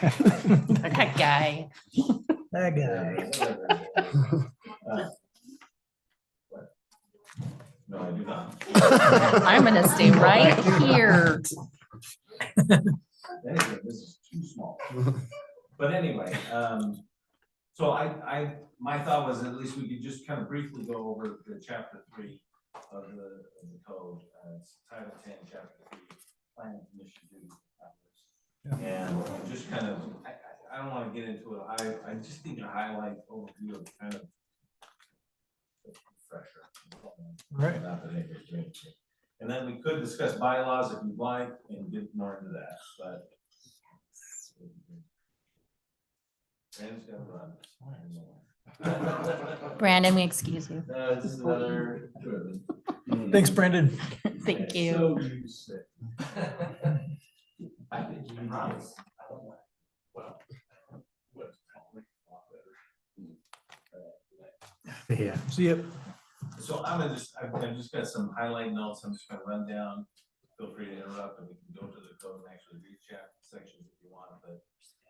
That guy. That guy. No, I do not. I'm gonna stay right here. Anyway, This is too small. But anyway, um, so I, I, my thought was at least we could just kind of briefly go over the chapter three of the, of the code, uh, it's title ten, chapter three, planning commission duty. hours. And just kind of, I, I, I don't wanna get into it, I, I just need to highlight overview of kind of pressure. Right. Not that it was great. And then we could discuss bylaws if you'd like and get more into that, but. Brandon's gonna run. Brandon, we excuse you. Uh, this is another. Thanks, Brandon. Thank Okay, you. So you said. I think you promise. I don't like- well, what's probably a lot better. Yeah. So, yep. So I'm gonna just, I've, I've just got some highlight notes, I'm just gonna run down, feel free to interrupt, and we can go to the code and actually read chapter sections if you want, but.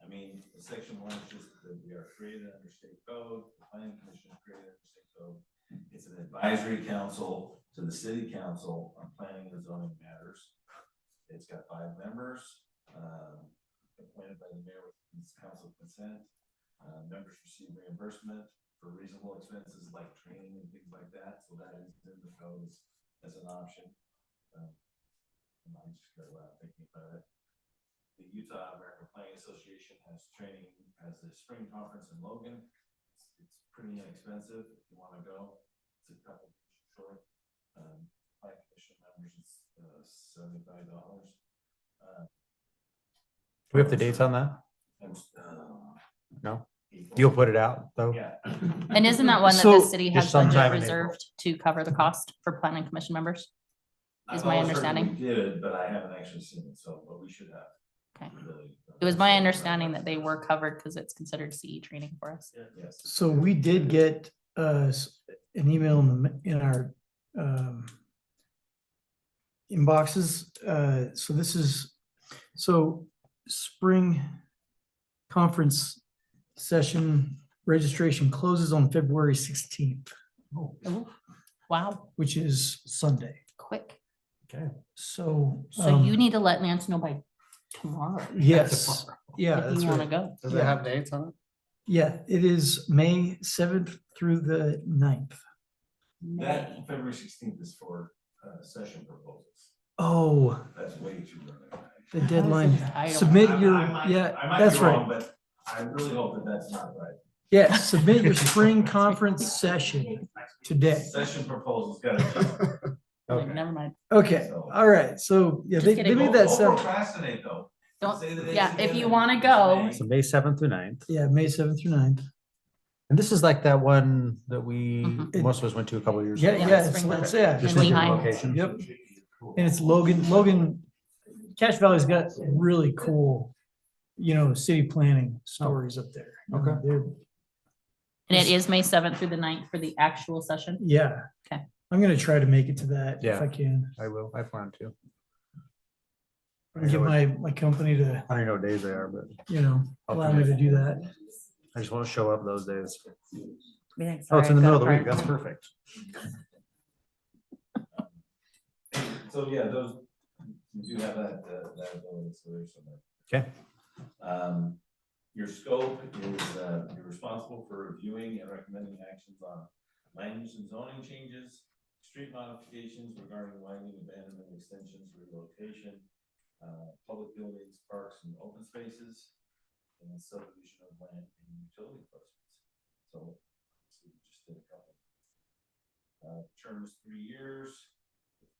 I mean, the section one is just that we are created under state code, the planning commission is created under state code. It's an advisory council to the city council on planning and zoning matters. It's got five members, um, appointed by the mayor with council consent. Uh, members receive reimbursement, for reasonable expenses like training and things like that, so that is in the code as, as an option. Um, I might just go out thinking about it. The Utah American Planning Association has training, has a spring conference in Logan. It's it's pretty inexpensive if you wanna go, it's a couple short. Um, like commission members, it's uh, seventy-five dollars. Uh, Do we have the dates on that? And, uh, No? April. You'll put it out, though? Yeah. And isn't that one that the So- city has Just budget sometime in April. reserved to cover the cost for planning commission members? I've is my always heard that understanding. We did, but I haven't actually seen it, so, but we should have. Okay. really. It was my understanding that they were covered because it's considered CE training for us. Yes. So we did get uh s- an email in the m- in our um inboxes. Uh, so this is, so spring conference session registration closes on February sixteenth, Oh. Wow, which is Sunday. quick. So. So you um, need to let Nance know by tomorrow Yes, yeah, if that's you want to right. go. Yeah. dates on Yeah, it is May seventh through the 9th. May. That February sixteenth is for uh, session proposals. Oh, That's way too early. the I was deadline. just- I don't- Submit I- I your, might- I yeah, might that's be wrong, right. But I really hope that that's not right. Yeah, submit your spring conference session today. Session proposals gotta. be- Like, Never mind. Okay, all right. So, yeah, Just they, kidding. they made Don't- that don't sound, Procrastinate though. Don't- Say the dates yeah, if again you and wanna it's go. May. So May seventh through 9th. yeah, May seventh through 9th. And this is like that one that we, Mhm. most of us went to a couple years Yeah, ago. Yeah, yeah, it's, spring it's, conference. yeah. Just And like Lehigh. your location. Yep. And it's Logan, Logan, Cache Valley's got really cool, you know, city planning stories up there. Okay. They're- And it is May seventh through the 9th for the actual session. Yeah. Okay. I'm gonna try to make it to that if Yeah. I can. I will, I plan to. I Get don't know what- my, my company to, I don't know what days they are, but you know, I'll allow come me to do that. I just want to show up those days. Oh, it's in the middle of the week. That's perfect. So, yeah, those, you do have that, uh, that ability, so there's some. Okay. Um, your scope is, uh, you're responsible for reviewing and recommending actions on land use and zoning changes, street modifications regarding widening, abandonment, extensions, relocation, uh, public buildings, parks and open spaces, and subdivision of land and utility placements. So, so we just did a couple. Uh, term is three years.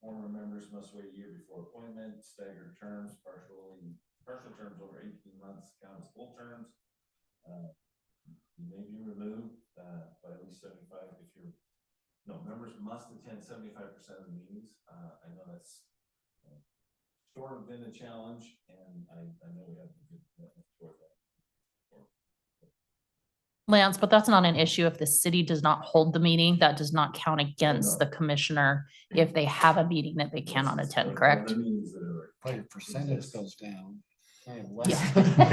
Former members must wait a year before appointment, staggered terms, partially, partial terms over eighteen months count as full terms. Uh, You may be removed, uh, by at least seventy-five if you're, no, members must attend seventy-five percent of the meetings. Uh, I know that's uh, sort of been a challenge and I, I know we have a good commitment toward that. Lance, but that's not an issue if the city does not hold the meeting. That does not count against the commissioner if they have a meeting that they cannot attend, correct? The meetings that are- Well, your percentage goes down. You have less Yeah.